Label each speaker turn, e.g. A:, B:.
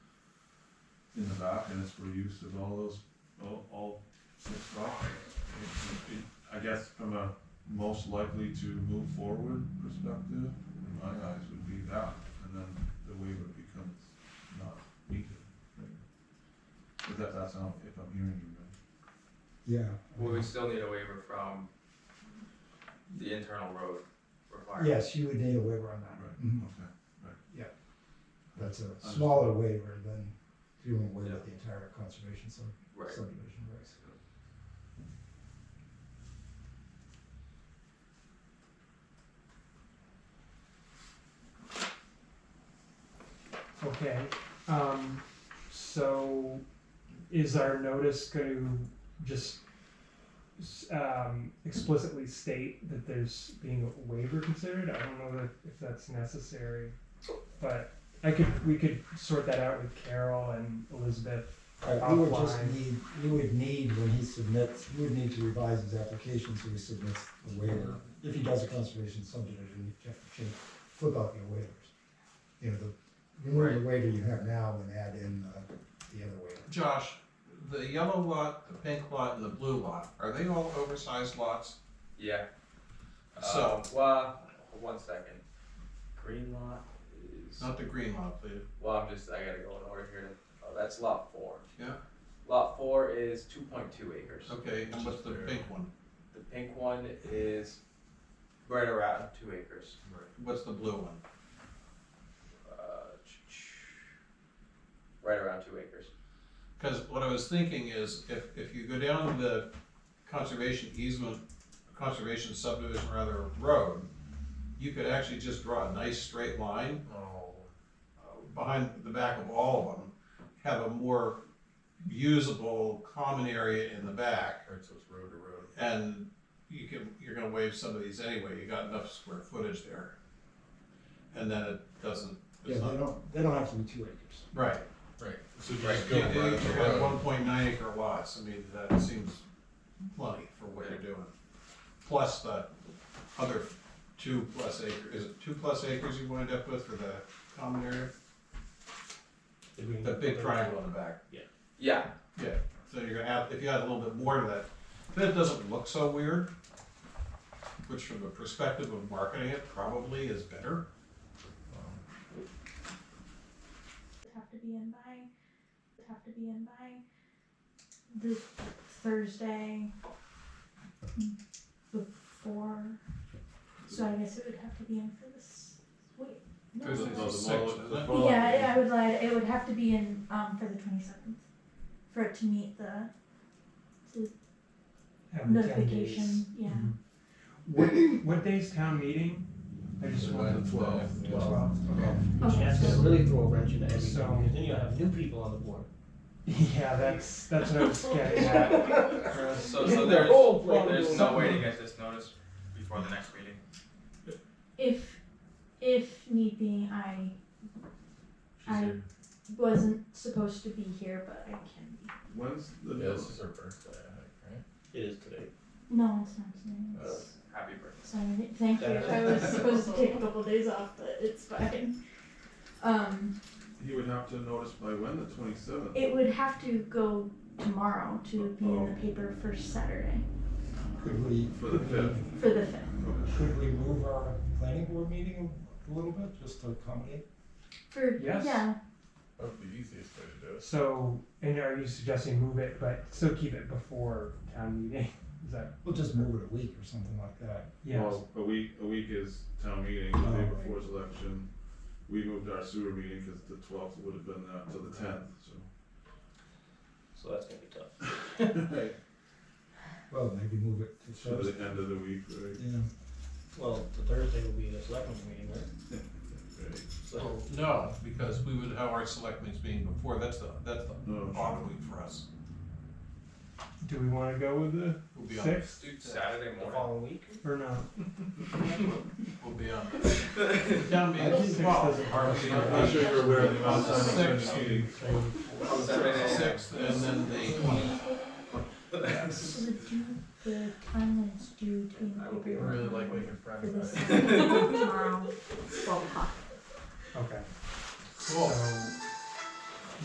A: in the back, and it's for use of all those, all, all six properties. It- it- I guess from a most likely to move forward perspective, in my eyes, would be that, and then the waiver becomes not needed. If that, that's not, if I'm hearing you right.
B: Yeah.
C: Well, we still need a waiver from the internal road requirement.
B: Yes, you would need a waiver on that.
A: Right,
C: Mm-hmm.
B: Mhm.
A: okay.
B: That's a
A: Understood.
B: smaller waiver than doing away
C: Yeah.
B: with the entire conservation sub-
C: Right.
B: subdivision regs.
D: Okay, um, so is our notice gonna just s- um, explicitly state that there's being a waiver considered? I don't know that- if that's necessary, but I could, we could sort that out with Carol and Elizabeth.
B: Right, we would just
D: Offline.
B: need, we would need, when he submits, we would need to revise his application so he submits the waiver. If he does a conservation subdivision, you have to change, flip out your waivers. You know, the, remove the waiver you have now and add in uh, the other waiver.
E: Josh, the yellow lot, the pink lot, and the blue lot, are they all oversized lots?
C: Yeah.
E: So-
C: Um, well, one second. Green lot is.
E: Not the green lot, the,
C: Well, I'm just, I gotta go in order here. Oh, that's lot four.
E: Yeah.
C: Lot four is two point two acres.
E: okay, and what's the pink one?
C: The pink one is right around two acres.
E: What's the blue one?
C: Uh, ch- ch- Right around two acres.
E: Because what I was thinking is, if, if you go down the conservation easement, conservation subdivision rather, road, you could actually just draw a nice straight line uh, behind the back of all of them, have a more usable common area in the back. Or it's road to road. And you can, you're gonna waive some of these anyway, you got enough square footage there. And then it doesn't,
B: Yeah,
E: it's
B: they
E: not,
B: don't, they don't have to be two acres.
E: right.
F: So you
C: Right.
F: just go
E: You
F: right up the
E: have
F: road.
E: one point nine acre lots, I mean, that seems plenty for what you're doing. Plus the other two plus acre, is it two plus acres you wind up with for the common area? The big triangle in the back,
C: Yeah,
E: yeah, so you're gonna add, if you add a little bit more to that, then it doesn't look so weird. Which from the perspective of marketing it probably is better.
G: have to be in by have to be in by the Thursday before. So I guess it would have to be in for this week. No,
E: Thursday's
G: no.
E: the sixth, isn't it?
G: Yeah, yeah, I would lie. It would have to be in um for the twenty seventh, for it to meet the
D: have the 10 days.
G: notification. Yeah.
D: What, what day's town meeting? I just wanted.
E: Twelve.
D: Twelve, okay.
G: Okay.
H: That's gonna really throw a wrench into everything,
D: So-
H: because then you have new people on the board.
D: Yeah, that's, that's what I was getting at.
C: so,
H: Yeah,
C: so
H: the
C: there's,
H: whole plan
C: there's
H: goes
C: no
H: up.
C: way to get this notice before the next meeting.
G: If if need be, I
A: She's
G: I-
A: here.
G: wasn't supposed to be here, but I can be.
A: When's the?
F: Yeah, this is her birthday, I
H: It is today.
G: No, it's not today.
F: think, right?
G: It's-
C: Happy birthday.
G: Sorry, thank you. I was supposed to take a couple days off, but it's fine. Um,
A: He would have to notice by when, the twenty-seventh?
G: it would have to go tomorrow to be in the paper for Saturday,
B: Could we,
A: For the fifth.
G: for the fifth.
A: Okay.
B: could we move our planning board meeting a little bit, just to accommodate?
G: For
D: Yes.
G: yeah,
F: That would be the easiest way to do it.
D: So, and are you suggesting move it, but still keep it before town meeting? Is that,
B: We'll just move it a week or something like that.
D: yeah,
A: Well, a week, a week is town meeting, the day
B: Oh.
A: before is election. We moved our sewer meeting because the twelfth would have been uh, to the tenth, so.
H: So that's gonna be tough.
B: Well, maybe move it to
A: To
B: Thursday.
A: the end of the week, right?
B: Yeah.
H: Well, the Thursday will be the selectmen's meeting, right?
A: Right.
H: So,
E: No, because we would have our selectmen's meeting before, that's the, that's the
A: No,
E: off week for us.
D: do we wanna go with the
E: We'll be on,
D: sixth
C: Dude, Saturday
H: the
C: morning.
H: following week?
D: or not?
E: we'll be on. Down
D: I think six doesn't-
A: I'm not sure you're aware of the amount of time it's
E: Six.
A: been meeting.
C: Oh,
E: Sixth, and then the twentieth.
G: so the due the time that it's due to be in the paper.
F: waking
G: for
F: Friday.
G: this Saturday, tomorrow, twelve o'clock.
D: Okay,
E: Cool.
D: so